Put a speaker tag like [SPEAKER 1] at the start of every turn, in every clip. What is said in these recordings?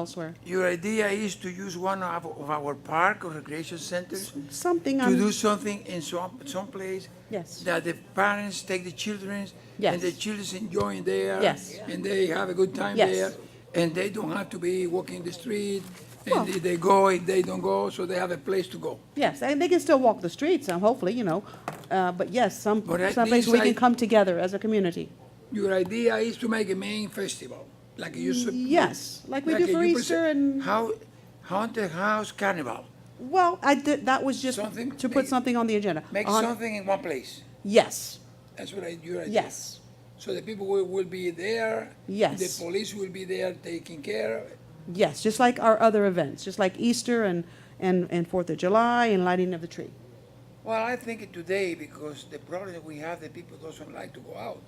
[SPEAKER 1] elsewhere.
[SPEAKER 2] Your idea is to use one of, of our park or recreation centers
[SPEAKER 1] Something
[SPEAKER 2] to do
[SPEAKER 1] on,
[SPEAKER 2] something in some, some place
[SPEAKER 1] um, yes,
[SPEAKER 2] that the parents take the children
[SPEAKER 1] Yes.
[SPEAKER 2] and the children's enjoying there
[SPEAKER 1] Yes.
[SPEAKER 2] and they have a good time
[SPEAKER 1] Yes.
[SPEAKER 2] there and they don't have to be walking the street and if they go if they don't go so they have a place to go.
[SPEAKER 1] yes, and they can still walk the streets, um, hopefully, you know, uh, but yes, some,
[SPEAKER 2] But at
[SPEAKER 1] some place
[SPEAKER 2] least
[SPEAKER 1] we
[SPEAKER 2] I-
[SPEAKER 1] can come together as a community.
[SPEAKER 2] Your idea is to make a main festival like you sup-
[SPEAKER 1] Yes, like we do
[SPEAKER 2] you
[SPEAKER 1] for
[SPEAKER 2] prese-
[SPEAKER 1] Easter and,
[SPEAKER 2] how haunted house carnival.
[SPEAKER 1] well, I did, that was just
[SPEAKER 2] Something-
[SPEAKER 1] to put
[SPEAKER 2] make-
[SPEAKER 1] something on the agenda.
[SPEAKER 2] Make
[SPEAKER 1] On-
[SPEAKER 2] something in one place.
[SPEAKER 1] Yes,
[SPEAKER 2] That's what I, your idea.
[SPEAKER 1] yes,
[SPEAKER 2] So the people will, will be there.
[SPEAKER 1] Yes.
[SPEAKER 2] The police will be there taking care. of it.
[SPEAKER 1] yes, just like our other events, just like Easter and, and, and Fourth of July and lighting of the tree.
[SPEAKER 2] Well, I think today, because the problem that we have, the people doesn't like to go out.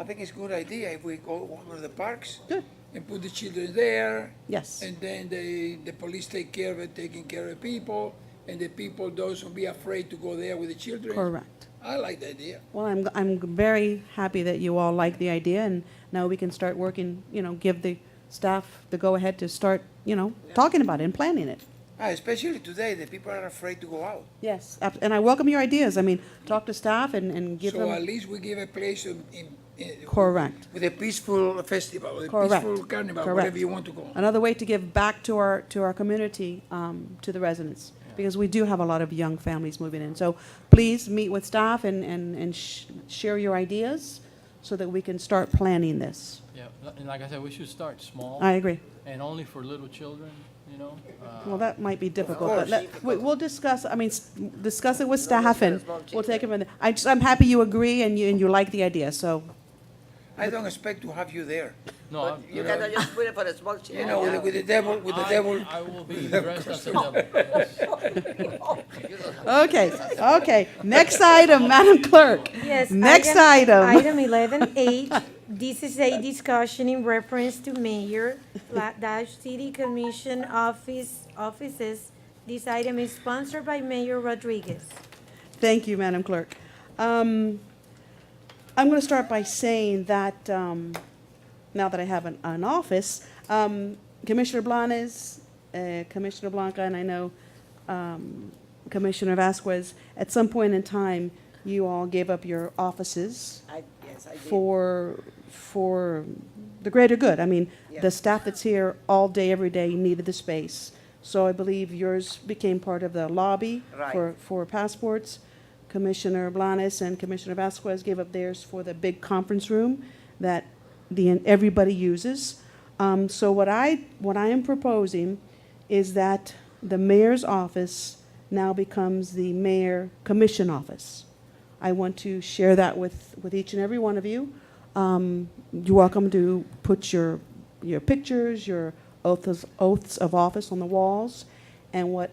[SPEAKER 2] I think it's a good idea if we go over the parks
[SPEAKER 1] Good.
[SPEAKER 2] and put the children there.
[SPEAKER 1] Yes.
[SPEAKER 2] And then they, the police take care of it, taking care of people, and the people doesn't be afraid to go there with the children.
[SPEAKER 1] Correct.
[SPEAKER 2] I like the idea.
[SPEAKER 1] Well, I'm, I'm very happy that you all like the idea, and now we can start working, you know, give the staff the go-ahead to start, you know, talking about it and planning it.
[SPEAKER 2] Ah, especially today, the people are afraid to go out.
[SPEAKER 1] Yes. ab- And I welcome your ideas. I mean, talk to staff and, and give
[SPEAKER 2] So at
[SPEAKER 1] them,
[SPEAKER 2] least we give a place in, in- in.
[SPEAKER 1] correct,
[SPEAKER 2] With a peaceful festival, a
[SPEAKER 1] correct.
[SPEAKER 2] peaceful carnival,
[SPEAKER 1] correct.
[SPEAKER 2] whatever you want to call. it.
[SPEAKER 1] Another way to give back to our, to our community, um, to the residents, because we do have a lot of young families moving in. So please meet with staff and, and, and sh- share your ideas so that we can start planning this.
[SPEAKER 3] Yeah, li- and like I said, we should start small
[SPEAKER 1] I agree.
[SPEAKER 3] and only for little children, you know? Uh,
[SPEAKER 1] Well, that might be difficult, but let, we, we'll discuss, I mean, s- discuss it with staff and we'll take it from there. I just, I'm happy you agree and you, and you like the idea, so,
[SPEAKER 2] I don't expect to have you there.
[SPEAKER 3] No, I'm-
[SPEAKER 4] You cannot just put it for the smoke
[SPEAKER 2] You
[SPEAKER 5] Oh,
[SPEAKER 4] signal.
[SPEAKER 2] know, with, the- with the devil, with the devil.
[SPEAKER 3] I, I will be dressed as a devil.
[SPEAKER 1] okay, okay. Next item, Madam Clerk.
[SPEAKER 6] Yes.
[SPEAKER 1] Next item.
[SPEAKER 6] Item eleven H, this is a discussion in reference to mayor la- dash city commission office, offices. This item is sponsored by Mayor Rodriguez.
[SPEAKER 1] Thank you, Madam Clerk. Um, I'm gonna start by saying that, um, now that I have an, an office, um, Commissioner Blanes, uh, Commissioner Blanca, and I know, um, Commissioner Vasquez, at some point in time, you all gave up your offices
[SPEAKER 4] I, yes, I did.
[SPEAKER 1] for, for the greater good. I mean,
[SPEAKER 4] Yeah.
[SPEAKER 1] the staff that's here all day, every day needed the space. So I believe yours became part of the lobby
[SPEAKER 4] Right.
[SPEAKER 1] for, for passports. Commissioner Blanes and Commissioner Vasquez gave up theirs for the big conference room that the, everybody uses. Um, so what I, what I am proposing is that the mayor's office now becomes the mayor commission office. I want to share that with, with each and every one of you. Um, You're welcome to put your, your pictures, your oaths, oaths of office on the walls, and what,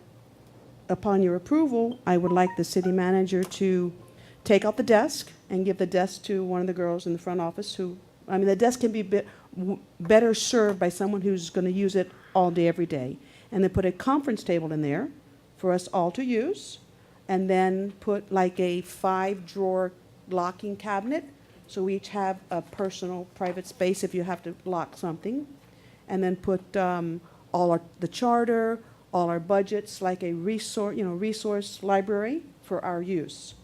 [SPEAKER 1] upon your approval, I would like the city manager to take out the desk and give the desk to one of the girls in the front office who, I mean, the desk can be bit, w- better served by someone who's gonna use it all day, every day. And then put a conference table in there for us all to use, and then put like a five-drawer locking cabinet, so we each have a personal private space if you have to lock something. And then put um, all our, the charter, all our budgets, like a resource, you know, resource library for our use,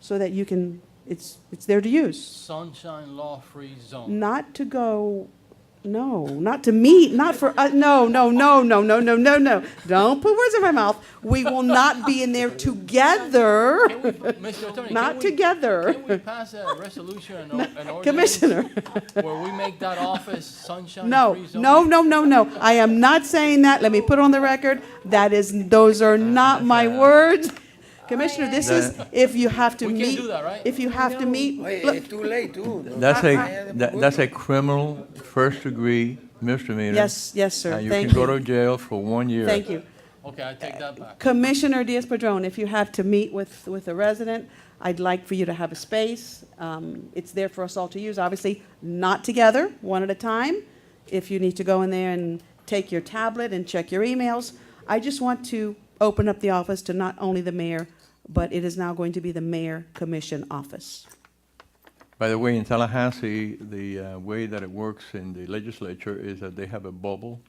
[SPEAKER 1] so that you can, it's, it's there to use.
[SPEAKER 3] Sunshine Law Free Zone.
[SPEAKER 1] Not to go, no, not to meet, not for, uh, no, no, no, no, no, no, no, no. Don't put words in my mouth. We will not be in there together,
[SPEAKER 3] Can we- Mr. Attorney,
[SPEAKER 1] not
[SPEAKER 3] can we,
[SPEAKER 1] together.
[SPEAKER 3] can we pass a resolution and or- an ordinance?
[SPEAKER 1] Commissioner.
[SPEAKER 3] Where we make that office Sunshine
[SPEAKER 1] No,
[SPEAKER 3] Free Zone?
[SPEAKER 1] no, no, no, no. I am not saying that. Let me put on the record. That is, those are not my words. Commissioner, this is if you have to
[SPEAKER 3] We
[SPEAKER 1] meet.
[SPEAKER 3] can't do that, right?
[SPEAKER 1] If you have to meet,
[SPEAKER 2] Hey,
[SPEAKER 1] look,
[SPEAKER 2] it's eh, too late, too.
[SPEAKER 5] That's
[SPEAKER 2] I- I-
[SPEAKER 5] a, that- that's a criminal first-degree misdemeanor.
[SPEAKER 1] yes, yes, sir.
[SPEAKER 5] And you can
[SPEAKER 1] Thank
[SPEAKER 5] go to
[SPEAKER 1] you.
[SPEAKER 5] jail for one year.
[SPEAKER 1] Thank you.
[SPEAKER 3] Okay, I take that back.
[SPEAKER 1] Commissioner Diaz-Padrón, if you have to meet with, with a resident, I'd like for you to have a space. Um, It's there for us all to use, obviously, not together, one at a time. If you need to go in there and take your tablet and check your emails. I just want to open up the office to not only the mayor, but it is now going to be the mayor commission office.
[SPEAKER 5] By the way, in Tallahassee, the uh, way that it works in the legislature is that they have a bubble